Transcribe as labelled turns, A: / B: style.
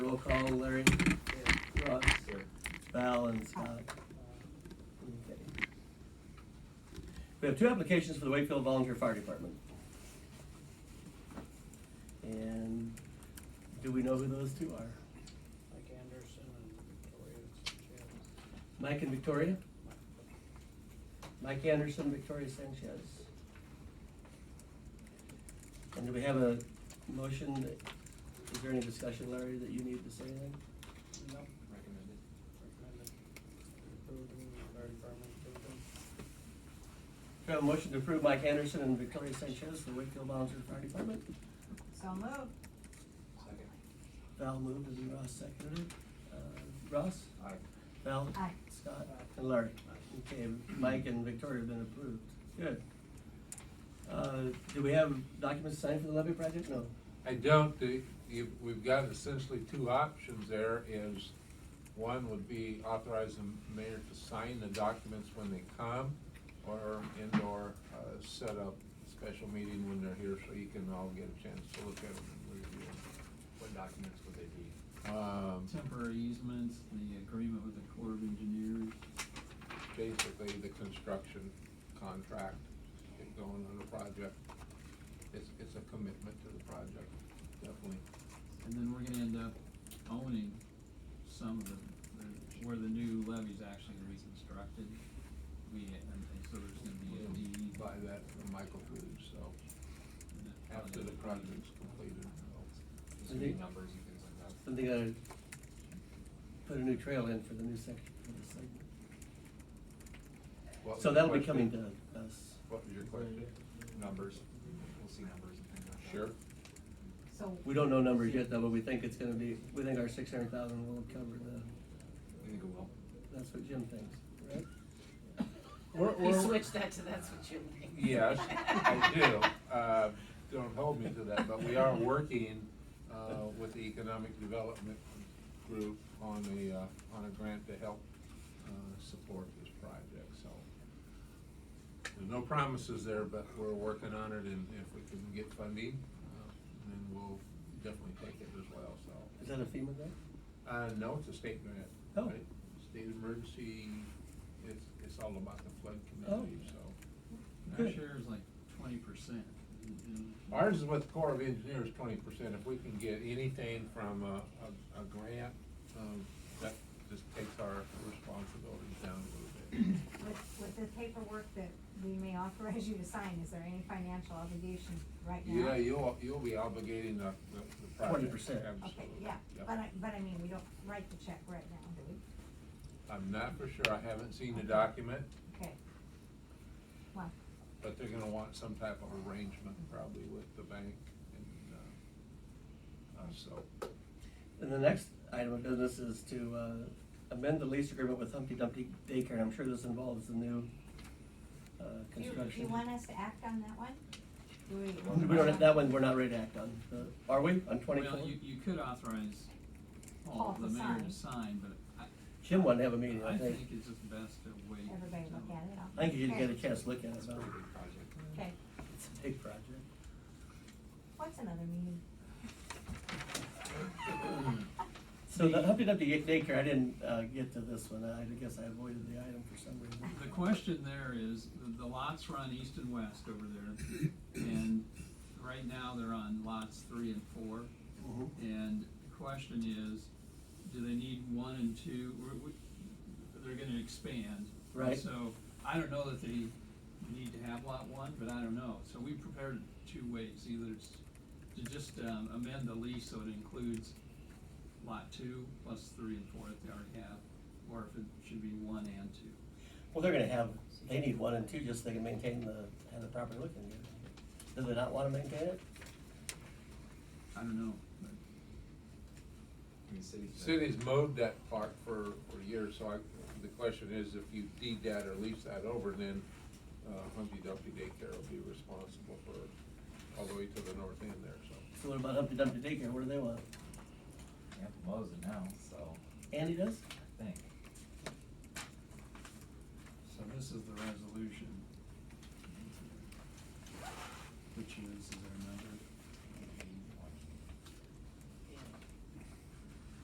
A: roll call, Larry, Ross, Val, and Scott. Okay. We have two applications for the Wakefield Volunteer Fire Department. And do we know who those two are?
B: Mike Anderson and Victoria Sanchez.
A: Mike and Victoria?
B: Mike-
A: Mike Anderson, Victoria Sanchez. And do we have a motion? that- Is there any discussion, Larry, that you need to say anything?
B: No, recommended. Approved, Larry Berman approved them.
A: Do we have a motion to approve Mike Anderson and Victoria Sanchez for Wakefield Volunteer Fire Department?
C: So moved.
D: Second.
A: Val moved and Ross seconded it. Uh, Ross?
D: Aye.
A: Val?
C: Aye.
A: Scott? And Larry? Okay, Mike and Victoria have been approved. Good. Uh, do we have documents signed for the levy project? No.
E: I don't, the, you, we've got essentially two options there is, one would be authorize the mayor to sign the documents when they come, or indoor, uh, set up special meeting when they're here, so you can all get a chance to look at them and review
D: What documents would they be?
E: them. Um,
F: Temporary easements, the agreement with the Corps of Engineers.
E: basically the construction contract, get going on the project. It's, it's a commitment to the project, definitely.
F: And then we're gonna end up owning some of the, the- where the new levee's actually reconstructed. We, and and so there's gonna be a
D: Mm-hmm.
F: deed.
E: Buy that from Michael Foods, so.
F: and it probably
E: after the
F: has a deed.
E: project's completed.
D: Just
A: Mhm.
D: need numbers and things like that.
A: Something gotta put a new trail in for the new section for this segment.
E: What was
A: So
E: your
A: that'll be coming
E: question?
A: to us.
E: What was your question?
D: Numbers, we'll see numbers and things like that.
E: Sure.
C: So.
A: We don't know numbers yet though, but we think it's gonna be, we think our six hundred thousand will cover the,
D: You think it will?
A: that's what Jim thinks, right?
E: We're-
G: He
E: we're-
G: switched that to that's what you mean.
E: Yes, I do. Uh, Don't hold me to that, but we are working uh, with the Economic Development Group on a, uh, on a grant to help uh, support this project, so. There's no promises there, but we're working on it, and if we can get funding, uh, then we'll definitely take it as well, so.
A: Is that a FEMA grant?
E: Uh, no, it's a state grant.
A: Oh.
E: right? State emergency, it's, it's all about the flood community,
A: Oh.
E: so.
F: And Our
A: Good.
F: share is like twenty percent.
E: Ours is with Corps of Engineers, twenty percent. If we can get anything from a, a, a grant, um, that just takes our responsibilities down a little bit.
C: With, with the paperwork that we may authorize you to sign, is there any financial obligation right now?
E: Yeah, you'll, you'll be obligating the, the the
A: 20%.
E: project.
C: Okay,
E: absolutely.
C: yeah, but I, but I mean, we don't write the check right now, do we?
E: I'm not for sure. I haven't seen the document,
C: Okay. Well,
E: but they're gonna want some type of arrangement probably with the bank and, uh, uh, so.
A: And the next item of business is to uh, amend the lease agreement with Humpty Dumpty Daycare, and I'm sure this involves the new uh,
C: do you,
A: construction.
C: do you want us to act on that one? Do we?
A: We don't, have- that one, we're not ready to act on. Uh, Are we, on twenty-four?
F: Well, you, you could authorize
C: Paul
F: Paul,
C: to
F: the mayor,
C: sign.
F: to sign, but I,
A: Jim wanted to have a meeting,
F: I
A: I
F: think
A: think.
F: it's just best to wait.
C: Everybody
F: till-
C: look at it, I'll.
A: I think you should
C: Okay.
A: get a chance to look at it,
D: It's a
A: but
D: pretty big project.
C: Okay,
A: it's a big project.
C: what's another meeting?
A: So the
F: The-
A: Humpty Dumpty Daycare, I didn't uh, get to this one, I guess I avoided the item for some reason.
F: The question there is, the- the lots run east and west over there, and right now they're on lots three and four.
A: Mhm.
F: And the question is, do they need one and two, We're- we- they're gonna expand.
A: Right.
F: So, I don't know that they need to have lot one, but I don't know, so we prepared it two ways, either it's to just um, amend the lease so it includes lot two plus three and four that they already have, or if it should be one and two.
A: Well, they're gonna have, they need one and two, just so they can maintain the, have the property looking good. Do they not wanna maintain it?
F: I don't know, but
D: I mean, cities.
E: Cities mowed that park for, for years, so I, the question is, if you deed that or lease that over, then, uh, Humpty Dumpty Daycare will be responsible for all the way to the north end there, so.
A: So what about Humpty Dumpty Daycare, what do they want?
H: Yeah, Lowe's it now, so
A: Andy does?
H: I think.
F: So this is the resolution. Which is, is